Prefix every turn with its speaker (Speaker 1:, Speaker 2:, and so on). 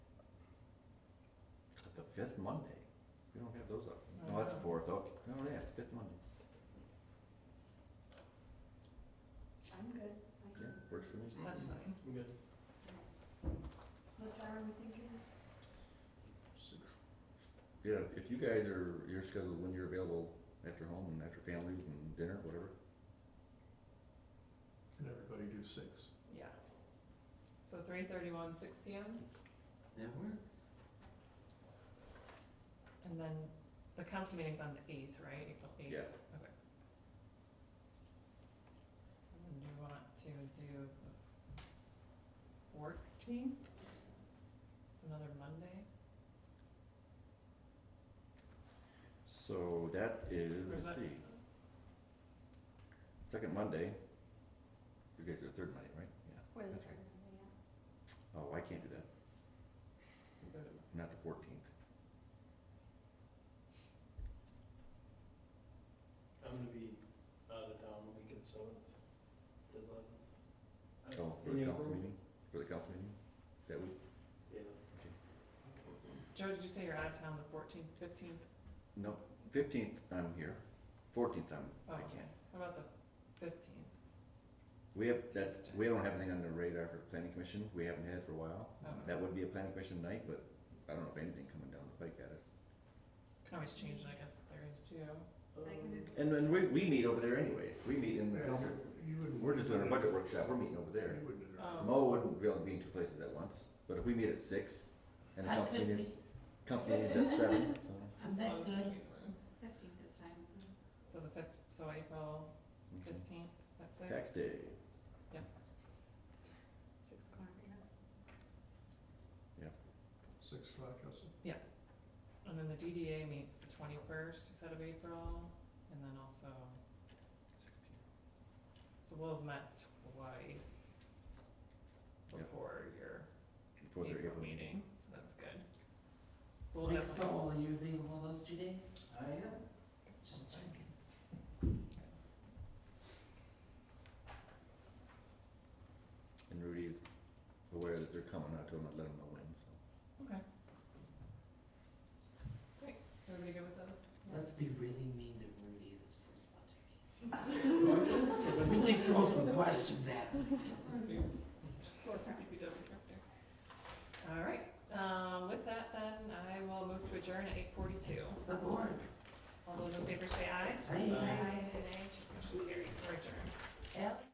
Speaker 1: the fifth Monday. We don't have those up. No, that's the fourth, okay. Oh, yeah, it's fifth Monday.
Speaker 2: I'm good, I
Speaker 1: Yeah,
Speaker 2: can.
Speaker 1: works for me.
Speaker 3: That's fine.
Speaker 4: I'm good.
Speaker 2: What time are we thinking?
Speaker 1: Yeah, if you guys are, your schedule, when you're available after home and after families and dinner, whatever.
Speaker 5: Can everybody do six?
Speaker 3: Yeah. So three thirty-one, six P M,
Speaker 4: That works.
Speaker 3: and then the council meeting's on the eighth, right, April eighth?
Speaker 1: Yeah.
Speaker 3: Okay. And then do you want to do the fourteenth? It's another Monday,
Speaker 1: So that is,
Speaker 3: Or is
Speaker 1: let's
Speaker 3: that-
Speaker 1: see, second Monday. You guys are the third Monday, right? Yeah.
Speaker 2: Where the
Speaker 1: That's
Speaker 2: time
Speaker 1: right.
Speaker 2: are we at?
Speaker 1: Oh, I can't do that. Not the fourteenth.
Speaker 4: I'm gonna be out of town the week of the seventh to eleventh.
Speaker 1: Oh, for the council meeting? For the council meeting? That week?
Speaker 4: Yeah.
Speaker 3: Joe, did you say you're out of town the fourteenth, fifteenth?
Speaker 1: No, fifteenth I'm here. Fourteenth I'm,
Speaker 3: Oh,
Speaker 1: I can't.
Speaker 3: okay, how about the fifteenth?
Speaker 1: We have, that's, we don't have anything on the radar for planning commission, we haven't had it for a while.
Speaker 3: Okay.
Speaker 1: That would be a planning commission night, but I don't know if anything coming down the pike at us.
Speaker 3: Can always change it, I guess, if there is too.
Speaker 2: I can
Speaker 4: Um,
Speaker 2: do.
Speaker 1: And then we, we meet over there anyways, we meet in the council,
Speaker 5: You wouldn't-
Speaker 1: we're just doing a budget workshop, we're meeting over there.
Speaker 5: You wouldn't
Speaker 3: Um,
Speaker 5: interrupt.
Speaker 4: Oh.
Speaker 1: Mo wouldn't be able to be in two places at once, but if we meet at six, and the council meeting, council meeting's at seven, so,
Speaker 3: I'm back then.
Speaker 2: Fifteenth this time.
Speaker 3: So the fifth, so April
Speaker 1: okay.
Speaker 3: fifteenth, that's it?
Speaker 1: Tax day,
Speaker 2: Six o'clock, yeah.
Speaker 5: Six o'clock, Justin?
Speaker 3: And then the DDA meets the twenty-first instead of April, and then also,
Speaker 1: six P M.
Speaker 3: so we'll have met twice
Speaker 1: Yeah.
Speaker 3: before your
Speaker 1: Before their
Speaker 3: April
Speaker 1: April meeting.
Speaker 3: meeting, so that's good. We'll definitely,
Speaker 4: are you available those two days? I am. Just checking.
Speaker 1: And Rudy's aware that they're coming, I told him I'd let him know when, so.
Speaker 3: everybody good with those? Yeah.
Speaker 4: Let's be really mean to Rudy this first budget meeting. Really throw some questions at him.
Speaker 3: CPW director. All right, um, with that then, I will move to adjourn at eight forty-two.
Speaker 4: Support.
Speaker 3: All those in favor say aye.
Speaker 4: Aye.
Speaker 3: Nay. Motion carries, we're adjourned.
Speaker 4: Aye.